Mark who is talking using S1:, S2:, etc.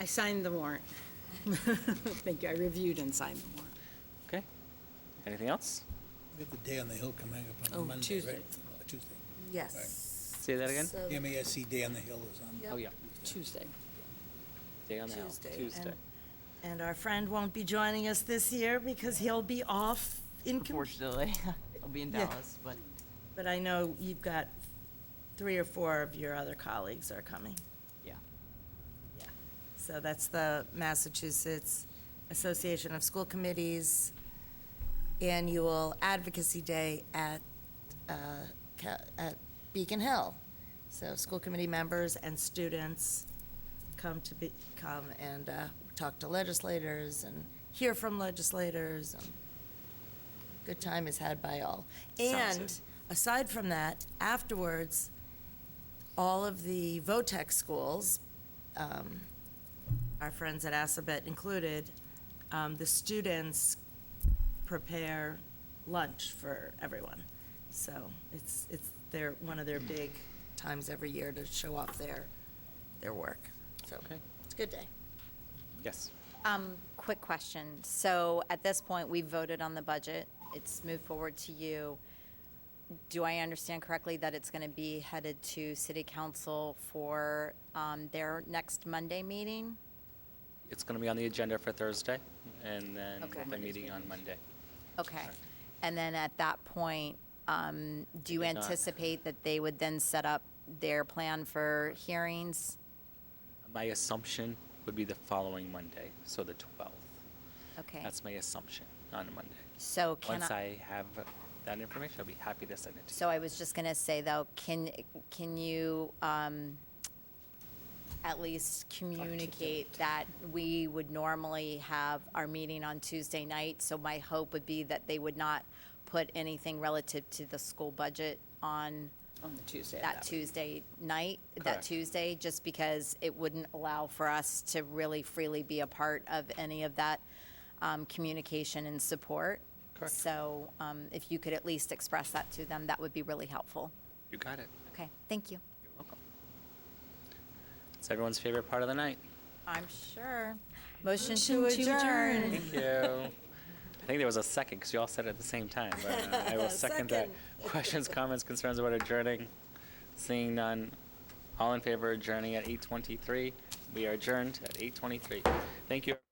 S1: I signed the warrant. Thank you, I reviewed and signed the warrant.
S2: Okay. Anything else?
S3: We have the day on the hill coming up
S1: Oh,
S3: on Monday,
S1: Tuesday.
S3: right? Uh, Tuesday.
S4: Yes.
S2: Say that again?
S4: So-
S3: MASC Day on the Hill is on.
S4: Yep.
S2: Oh, yeah.
S1: Tuesday.
S2: Day on the Hill,
S4: Tuesday,
S2: Tuesday.
S4: and- And our friend won't be joining us this year because he'll be off in, com-
S5: Unfortunately, I'll be in
S4: Yeah.
S5: Dallas, but
S4: but I know you've got three or four of your other colleagues are coming.
S5: yeah.
S4: Yeah. So that's the Massachusetts Association of School Committees Annual Advocacy Day at, uh, Ca- at Beacon Hill. So school committee members and students come to be, come and uh, talk to legislators and hear from legislators. and Good time is had by all.
S2: Sounds
S4: And
S2: it.
S4: aside from that, afterwards, all of the VOTEC schools, um, our friends at Assabet included, um, the students prepare lunch for everyone. So it's, it's their, one of their big times every year to show off their, their work. So
S2: Okay.
S4: it's a good day.
S2: Yes.
S6: Um, quick question. So at this point, we voted on the budget. It's moved forward to you. Do I understand correctly that it's going to be headed to city council for, um, their next Monday meeting?
S2: It's going to be on the agenda for Thursday and then
S6: Okay.
S2: the meeting on Monday.
S6: Okay.
S2: Correct.
S6: And then at that point, um, do you
S2: They did not.
S6: anticipate that they would then set up their plan for hearings?
S2: My assumption would be the following Monday, so the 12th.
S6: Okay.
S2: That's my assumption on Monday.
S6: So can I?
S2: Once I have that information, I'll be happy to send it to you.
S6: So I was just going to say, though, can, can you um, at least communicate that we would normally have our meeting on Tuesday night? So my hope would be that they would not put anything relative to the school budget on
S1: On the Tuesday. of
S6: that
S1: week.
S6: Tuesday night, that
S2: Correct.
S6: Tuesday, just because it wouldn't allow for us to really freely be a part of any of that um, communication and support.
S2: Correct.
S6: So um, if you could at least express that to them, that would be really helpful.
S2: You got it.
S6: Okay, thank you.
S2: You're welcome. It's everyone's favorite part of the night.
S6: I'm sure. Motion to adjourn.
S2: Thank you. I think there was a second because you all said it at the same time. But uh, I will second, that. Questions, comments, concerns about adjourning? Seeing none. All in favor of adjourning at 8:23. We are adjourned at 8:23. Thank you.